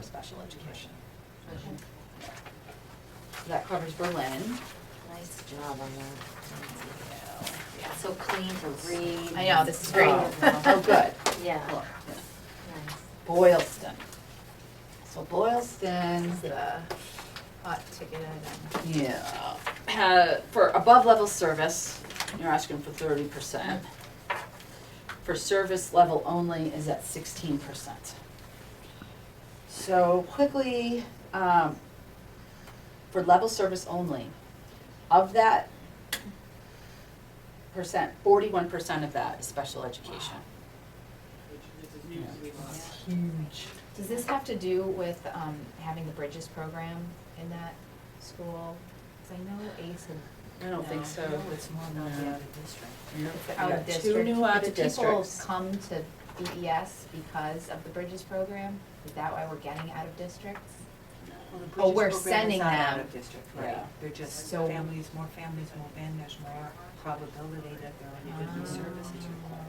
special education. So that covers Berlin. Nice job on that. Yeah. So clean to read. I know, this is great. Oh, Oh, good. Yeah. Look, nice. Boylston. So uh, Boylston's the, uh, Hot ticket item. yeah, uh, for above level service, you're asking for thirty percent. For service level only is at sixteen percent. So quickly, um, for level service only, of that percent, forty-one percent of that is special education. Huge. Does this have to do with um, having the Bridges program in that school? Because I know Ace had. I don't think No. so, it's more than Not the that. other district. Yep. It's We out got of district. Two new out Do of districts. people come to BES because of the Bridges program? Is that why we're getting out of districts? Well, the Oh, we're Bridges program sending is not out them. of district, Yeah. right? They're just So- families, more families move in, there's more probability that there are new Ah. services required.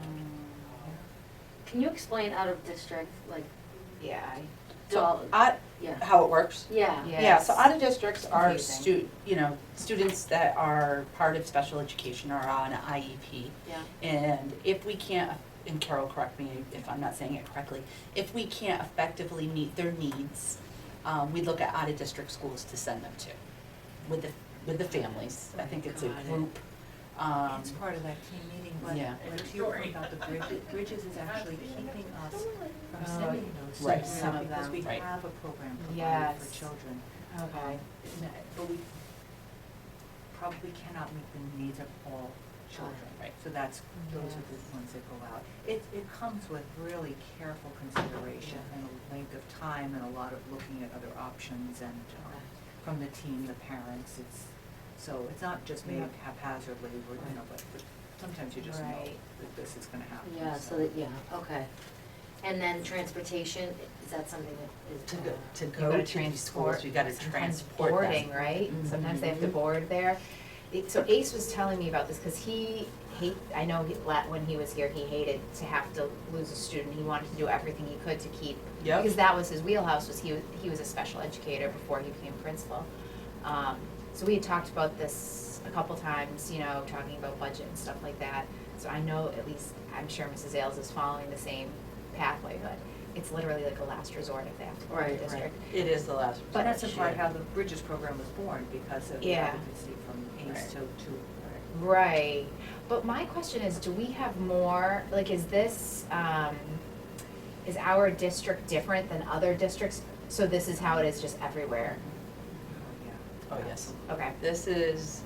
Can you explain out of district, like, Yeah. to all, So, I, yeah, how it works? yeah. Yeah. Yeah, so out of districts are Confusing. stu, you know, students that are part of special education or on an IEP. Yeah. And if we can't, and Carol, correct me if I'm not saying it correctly, if we can't effectively meet their needs, um, we look at out-of-district schools to send them to, with the, with the families. I think it's a Got it. group, um, It's part of that team meeting, but Yeah. what you were talking about the Bridges, Bridges is actually keeping us Oh, from sending those right. students Some of out because them. we Right. have a program provided Yes. for children. Okay. Isn't it? But we probably cannot meet the needs of all children. Right. So that's, those are the ones that go out. It, it comes with really careful consideration and a length of time and a lot of looking at other options and um, from the team, the parents, it's, so it's not just made Yeah. haphazardly, we're, you know, but but sometimes you just know Right. that this is gonna happen. Yeah, so that, yeah, okay. And then transportation, is that something that is? to go, to You go gotta to these schools, you gotta transport Sometimes them. boarding, right? Sometimes they have to Mhm. board there. It- So Ace was telling me about this, because he hate, I know he- la- when he was here, he hated to have to lose a student. He wanted to do everything he could to keep Yep. because that was his wheelhouse was he was, he was a special educator before he became principal. Um, so we had talked about this a couple times, you know, talking about budget and stuff like that. So I know at least I'm sure Mrs. Ailes is following the same pathway, but it's literally like a last resort if they have to go to the Right, right. district. It is the last. But that's in resort, part yeah. how the Bridges program was born, because of the Yeah. advocacy from Right. ACE to, to Right, but my question is, do we have more, like, is this, um, is our district different than other districts? So this is how it is just everywhere, Yeah. Oh, yes. okay, This is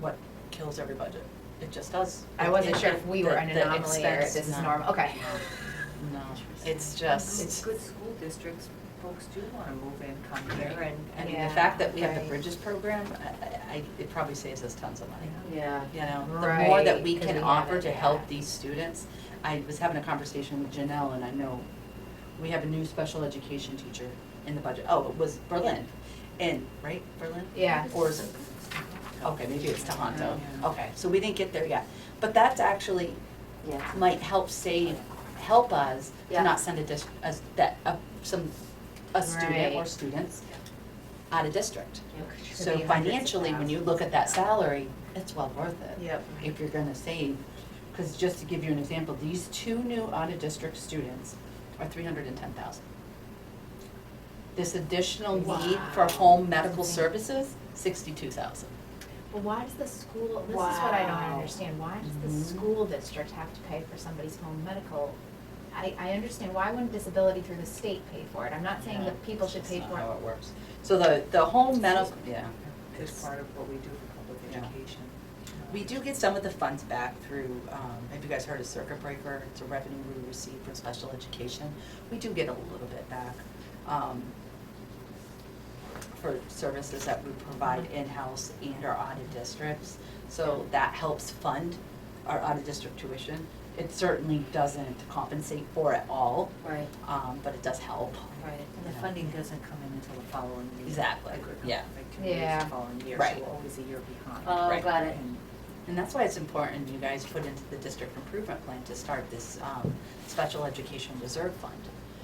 what kills every budget. It just does. I wasn't It- sure if we were the- an the anomaly or expense- this is no, normal, okay. No, it's It's just, good school districts, folks do wanna move in, come here and, I and mean, Yeah, the fact that we have the right. Bridges program, I, I, it probably saves us tons of money. Yeah, You know, the more that Right, we 'cause can we have offer it, to yeah. help these students. I was having a conversation with Janelle and I know we have a new special education teacher in the budget. Oh, it was Berlin. And, right, Berlin? Yeah. Oh, Or is it Okay, maybe it's Tohoto. Yeah. Okay, so we didn't get there yet. But that's actually yeah, might help save, help us Yeah. to not send a dis, a, that, a, some, a student or Right. students out of district. yeah, 'cause you- So be hundreds of financially, when you look at that salary, it's well worth it. Yep. If you're gonna save, cause just to give you an example, these two new out-of-district students are three hundred and ten thousand. This additional need for Wow. home medical services, sixty-two thousand. But why does the school, this is what I don't Wow. understand, why does Mhm. the school district have to pay for somebody's home medical? I, I understand, why wouldn't disability through the state pay for it? I'm not saying that people should pay That's for not how it. it works. So the, the home medical, yeah. It's It's- part of what we do for public Yeah. education. We do get some of the funds back through, um, have you guys heard of Circuit Breaker? It's a revenue we receive from special education. We do get a little bit back um, for services that we provide in-house and our audit districts. So that helps fund our out-of-district tuition. It certainly doesn't compensate for it all, right, um, but it does help. right. And the funding doesn't come in until the following year. Exactly, Like, we're yeah. Like two years Yeah. the following year, Right. so we're always a year behind. Oh, Right. got it. And And that's why it's important you guys put into the district improvement plan to start this um, special education reserve fund.